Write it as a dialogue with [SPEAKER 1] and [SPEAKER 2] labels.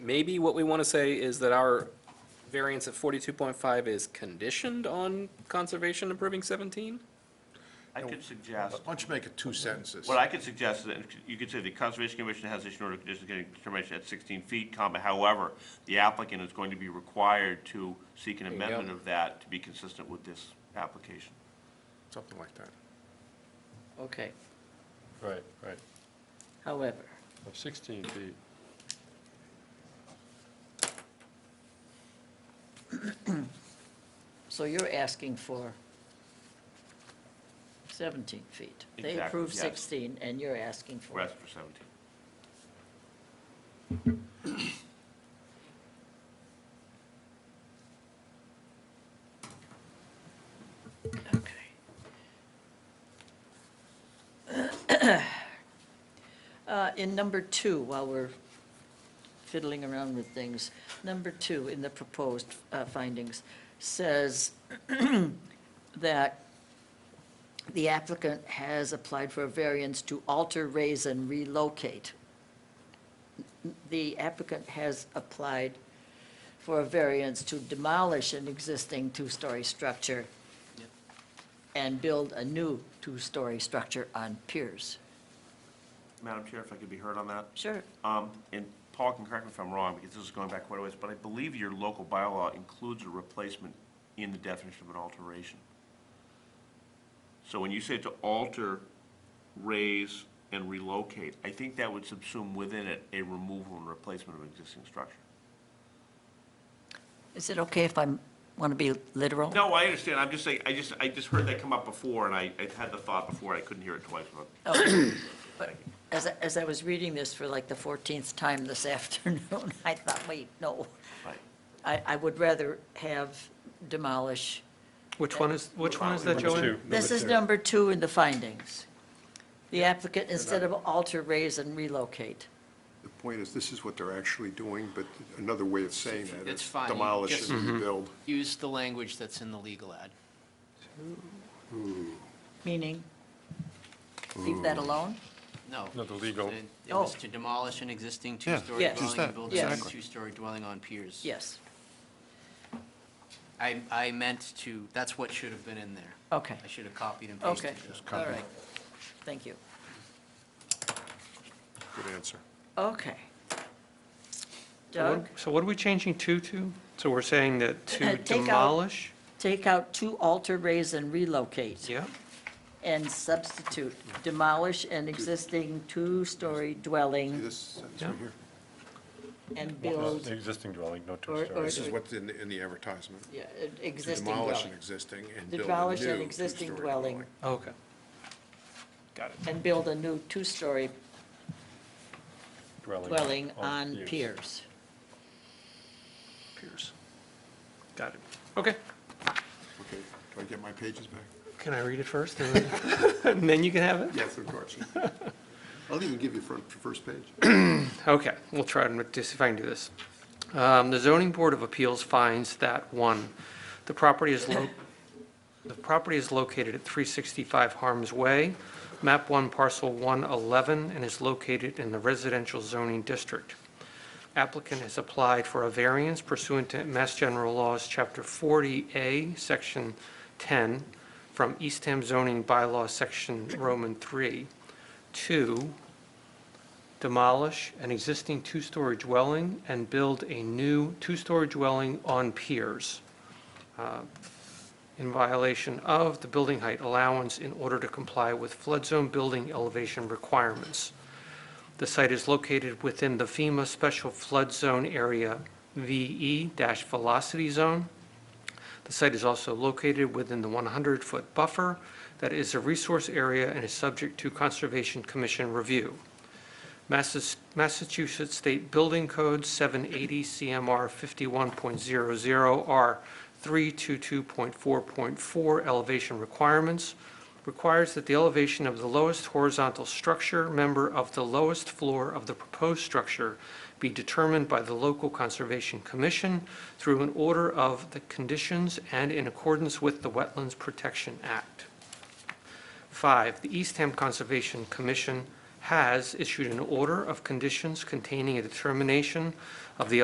[SPEAKER 1] maybe what we want to say is that our variance at forty-two point five is conditioned on conservation improving seventeen?
[SPEAKER 2] I could suggest,
[SPEAKER 3] Why don't you make it two sentences?
[SPEAKER 2] what I could suggest is that you could say the Conservation Commission has issued an order of conditions getting determination at 16 feet, comma, however, the applicant is going to be required to seek an
[SPEAKER 1] you go.
[SPEAKER 2] amendment of that to be consistent with this application.
[SPEAKER 3] Something like that.
[SPEAKER 4] Okay,
[SPEAKER 5] Right, right,
[SPEAKER 4] however,
[SPEAKER 5] of 16 feet.
[SPEAKER 4] so you're asking for 17 feet. They
[SPEAKER 2] Exactly,
[SPEAKER 4] approved
[SPEAKER 2] yes.
[SPEAKER 4] 16, and you're asking for
[SPEAKER 2] Rest for 17.
[SPEAKER 4] Okay. Uh, In number two, while we're fiddling around with things, number two in the proposed uh, findings says that the applicant has applied for a variance to alter, raise, and relocate. The applicant has applied for a variance to demolish an existing two-story structure and build a new two-story structure on piers.
[SPEAKER 2] Madam Chair, if I could be heard on that?
[SPEAKER 4] Sure.
[SPEAKER 2] Um, And Paul can correct me if I'm wrong, because this is going back quite a ways, but I believe your local bylaw includes a replacement in the definition of an alteration. So when you say to alter, raise, and relocate, I think that would subsume within it a removal and replacement of existing structure.
[SPEAKER 4] Is it okay if I want to be literal?
[SPEAKER 2] No, I understand, I'm just saying, I just, I just heard that come up before, and I, I had the thought before, I couldn't hear it twice, but
[SPEAKER 4] Okay. But As, I- as I was reading this for like the 14th time this afternoon, I thought, wait, no.
[SPEAKER 2] Right.
[SPEAKER 4] I, I would rather have demolish.
[SPEAKER 6] Which one is, which one is that,
[SPEAKER 5] Number
[SPEAKER 6] Joanne?
[SPEAKER 5] two,
[SPEAKER 4] This is
[SPEAKER 5] two.
[SPEAKER 4] number two in the findings. The applicant, instead of alter, raise, and relocate.
[SPEAKER 7] The point is, this is what they're actually doing, but another way of saying that
[SPEAKER 8] That's
[SPEAKER 7] is
[SPEAKER 8] fine. You
[SPEAKER 7] demolish
[SPEAKER 8] just-
[SPEAKER 7] and rebuild.
[SPEAKER 8] use the language that's in the legal ad.
[SPEAKER 4] Meaning, leave that alone?
[SPEAKER 8] No.
[SPEAKER 5] No, the legal.
[SPEAKER 8] It it was
[SPEAKER 4] Oh.
[SPEAKER 8] to demolish an existing two-story
[SPEAKER 4] Yes.
[SPEAKER 8] dwelling
[SPEAKER 7] that,
[SPEAKER 8] and build a new
[SPEAKER 4] exactly.
[SPEAKER 8] two-story dwelling on piers.
[SPEAKER 4] Yes,
[SPEAKER 8] I, I meant to, that's what should have been in there.
[SPEAKER 4] okay,
[SPEAKER 8] I should have copied and
[SPEAKER 4] okay,
[SPEAKER 8] pasted that.
[SPEAKER 4] all right. Thank you.
[SPEAKER 7] Good answer.
[SPEAKER 4] Okay.
[SPEAKER 6] So
[SPEAKER 4] Doug,
[SPEAKER 6] what- So what are we changing two to? So we're saying that to
[SPEAKER 4] Uh, Take out-
[SPEAKER 6] demolish?
[SPEAKER 4] take out to alter, raise, and relocate.
[SPEAKER 6] Yeah,
[SPEAKER 4] And substitute demolish an existing two-story
[SPEAKER 7] See
[SPEAKER 4] dwelling
[SPEAKER 7] this sentence right
[SPEAKER 6] Yeah.
[SPEAKER 7] here?
[SPEAKER 5] This
[SPEAKER 4] and
[SPEAKER 5] is
[SPEAKER 4] build,
[SPEAKER 5] the Existing dwelling, no
[SPEAKER 4] Or- or-
[SPEAKER 5] two-story.
[SPEAKER 7] This is what's in, the- in the advertisement.
[SPEAKER 4] yeah, an existing
[SPEAKER 7] Demolish an
[SPEAKER 4] dwelling.
[SPEAKER 7] existing and build a new.
[SPEAKER 4] Demolish an existing
[SPEAKER 7] two-story
[SPEAKER 4] dwelling
[SPEAKER 6] okay.
[SPEAKER 4] and build a new two-story dwelling on
[SPEAKER 5] piers.
[SPEAKER 4] piers.
[SPEAKER 6] Pierce. Got it. Okay.
[SPEAKER 7] Okay, do I get my pages back?
[SPEAKER 6] Can I read it first and then- and then you can have it?
[SPEAKER 7] Yes, of course. I'll even give you front, first page.
[SPEAKER 6] Okay, we'll try and make this- if I can do this. Um, The zoning board of appeals finds that, one, the property is lo, the property is located at 365 Harms Way, map 1 parcel 111, and is located in the residential zoning district. Applicant has applied for a variance pursuant to Mass General Laws, Chapter 40A, Section 10, from Eastham zoning bylaw, Section Roman 3, to demolish an existing two-story dwelling and build a new two-story dwelling on piers uh, in violation of the building height allowance in order to comply with flood zone building elevation requirements. The site is located within the FEMA Special Flood Zone Area VE-Velocity Zone. The site is also located within the 100-foot buffer that is a resource area and is subject to Conservation Commission review. Massas- Massachusetts State Building Code 780 CMR 51.00 R 322.4.4 elevation requirements requires that the elevation of the lowest horizontal structure member of the lowest floor of the proposed structure be determined by the local conservation commission through an order of the conditions and in accordance with the Wetlands Protection Act. Five, the Eastham Conservation Commission has issued an order of conditions containing a determination of the